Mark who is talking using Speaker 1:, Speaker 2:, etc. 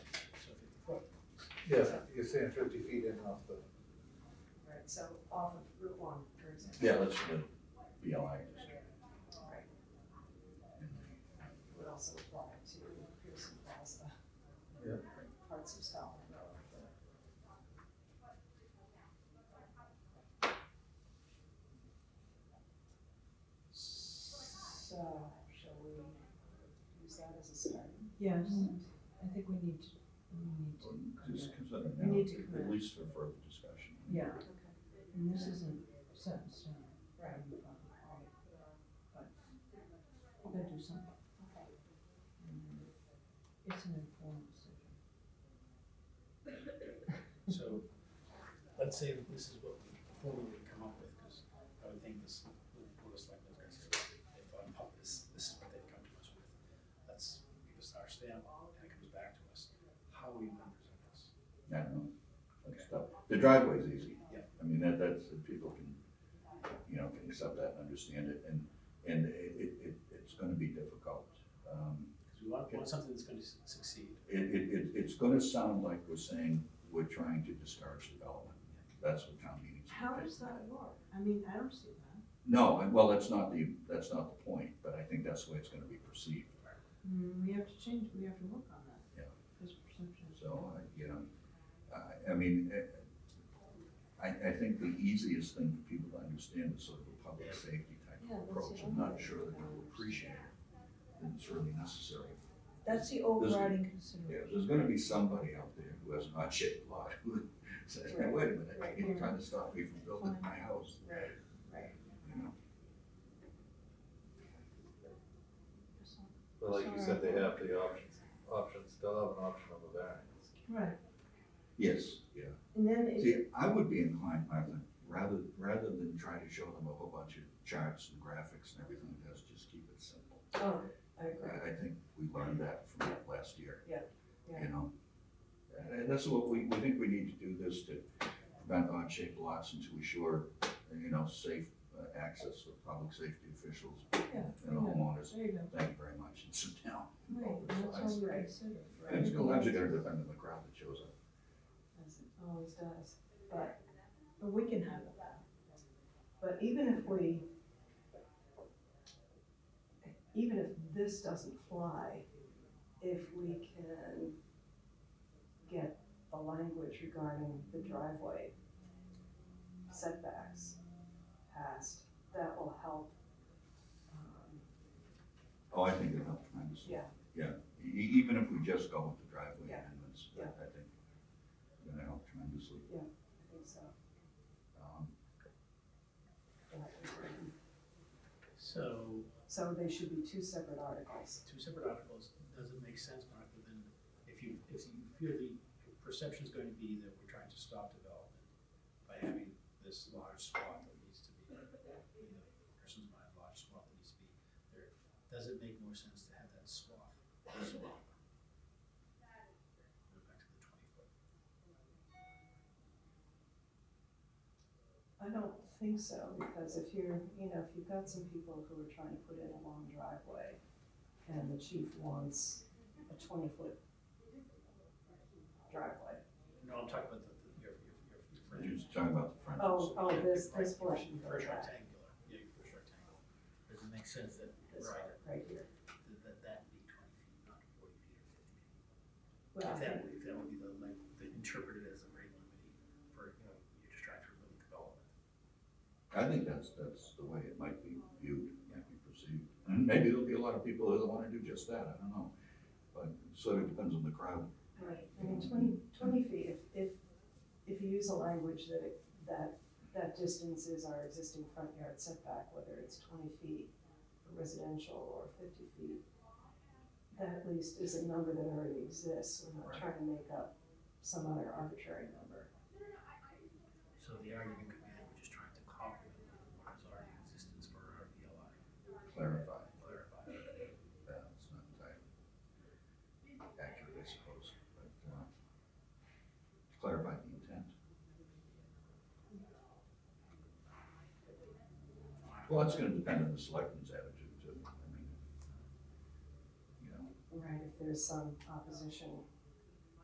Speaker 1: Yeah, you're saying fifty feet in off the,
Speaker 2: Right, so off of Route one, for example.
Speaker 3: Yeah, that's the BLI.
Speaker 2: Right. Would also apply to Pearson Plaza.
Speaker 1: Yeah.
Speaker 2: Parts of Scotland. So, shall we use that as a starting
Speaker 4: Yes,
Speaker 2: point?
Speaker 4: I think we need to, we need to,
Speaker 3: Just consider
Speaker 4: We
Speaker 3: now,
Speaker 4: need to
Speaker 3: at
Speaker 4: commit.
Speaker 3: least for further discussion.
Speaker 4: yeah,
Speaker 2: Okay.
Speaker 4: and this isn't set in stone.
Speaker 2: Right,
Speaker 4: um, But we're gonna do something.
Speaker 2: okay.
Speaker 4: and It's an informed decision.
Speaker 5: So, let's say that this is what we formally come up with, because I would think this, the board of selectmen is gonna say, they thought about this, this is what they've come to us with. Let's give us our stamp, and it comes back to us, how we want to present this.
Speaker 3: I don't know, that's tough. The driveway's easy.
Speaker 5: Yeah.
Speaker 3: I mean, that, that's, if people can, you know, can accept that and understand it, and, and it, it, it- it's gonna be difficult. Um,
Speaker 5: Because we want, we want something that's gonna su- succeed.
Speaker 3: It, it, it, it's gonna sound like we're saying we're trying to discourage development. That's what town meetings.
Speaker 4: How does that work? I mean, I don't see that.
Speaker 3: No, and- well, that's not the, that's not the point, but I think that's the way it's gonna be perceived.
Speaker 4: Mm, we have to change, we have to work on that.
Speaker 3: Yeah.
Speaker 4: This perception is.
Speaker 3: So, I- you know, I, I mean, eh, I, I think the easiest thing for people to understand is sort of a public safety type
Speaker 4: Yeah,
Speaker 3: of
Speaker 4: that's
Speaker 3: approach.
Speaker 4: the
Speaker 3: I'm not
Speaker 4: only
Speaker 3: sure that
Speaker 4: thing I
Speaker 3: they'll
Speaker 4: understand.
Speaker 3: appreciate it, and it's really necessary.
Speaker 4: That's the
Speaker 3: overriding
Speaker 4: overriding
Speaker 3: Yeah,
Speaker 4: consideration.
Speaker 3: there's gonna be somebody out there who has an odd shaped lot who says, hey, wait a minute,
Speaker 2: Right.
Speaker 3: you're trying to stop me from building my house,
Speaker 2: Right, right.
Speaker 3: you know?
Speaker 1: but like you said, they have the option, option, still have an option of a variance.
Speaker 4: Right,
Speaker 3: Yes, yeah.
Speaker 4: and then it,
Speaker 3: See, I would be inclined, Martha, rather, rather than try to show them a whole bunch of charts and graphics and everything, let's just keep it simple.
Speaker 4: oh, I agree.
Speaker 3: I, I think we learned that from last year.
Speaker 4: Yeah, yeah.
Speaker 3: You know? And- And that's what we, we think we need to do this to prevent odd-shaped lots and to assure, you know, safe uh, access for public safety officials
Speaker 4: Yeah,
Speaker 3: and homeowners.
Speaker 4: There you go.
Speaker 3: Thank you very much, and sit down.
Speaker 4: Right,
Speaker 3: Over
Speaker 4: that's
Speaker 3: size.
Speaker 4: all we consider.
Speaker 3: And it's gonna, actually gonna depend on the crowd that shows up.
Speaker 4: as it always does, but, but we can handle that. But even if we, even if this doesn't fly, if we can get the language regarding the driveway setbacks passed, that will help. um,
Speaker 3: Oh, I think it helped tremendously.
Speaker 4: Yeah.
Speaker 3: Yeah, e- e- even if we just go with the driveway
Speaker 4: Yeah.
Speaker 3: amendments, I,
Speaker 4: Yeah.
Speaker 3: I think it's gonna help tremendously.
Speaker 4: I think so.
Speaker 3: Um,
Speaker 5: So,
Speaker 4: So they should be two separate articles.
Speaker 5: two separate articles, does it make sense, Mark, But then, if you, if you feel the perception's going to be that we're trying to stop development by having this large swath that needs to be, in the person's mind, large swath that needs to be there, does it make more sense to have that swath? this long? Go back to the twenty foot.
Speaker 2: I don't think so, because if you're, you know, if you've got some people who are trying to put in a long driveway and the chief wants a twenty foot driveway.
Speaker 5: No, I'm talking about the, the- your, your, your, your
Speaker 3: We're
Speaker 5: front.
Speaker 3: just talking about the front.
Speaker 2: Oh, oh, this,
Speaker 5: Right,
Speaker 2: this
Speaker 5: your-
Speaker 2: portion, right,
Speaker 5: your First rectangular, yeah, your first rectangle, does it make sense that,
Speaker 2: this
Speaker 5: right,
Speaker 2: part, right here.
Speaker 5: that- that, that be twenty feet, not forty feet or fifty feet?
Speaker 2: Well,
Speaker 5: If that, if that would be the, like, the interpreted as a rate limiting for, you know, you're just trying to limit development.
Speaker 3: I think that's, that's the way it might be viewed, might be perceived. And maybe there'll be a lot of people who wanna do just that, I don't know. But it sort of depends on the crowd.
Speaker 2: right, I mean, 20 20 feet, if, if, if you use a language that, it- that, that distance is our existing front yard setback, whether it's twenty feet for residential or fifty feet, that at least is a number that already exists, we're not
Speaker 3: Right.
Speaker 2: trying to make up some other arbitrary number.
Speaker 5: So the argument could be that we're just trying to complement what is already in existence for our VLI,
Speaker 3: Clarify,
Speaker 5: clarify.
Speaker 3: uh, it's not entirely accurate, I suppose, but, uh, clarify the intent. Well, it's gonna depend on the selectmen's attitude too, I mean, you know,
Speaker 2: Right, if there's some opposition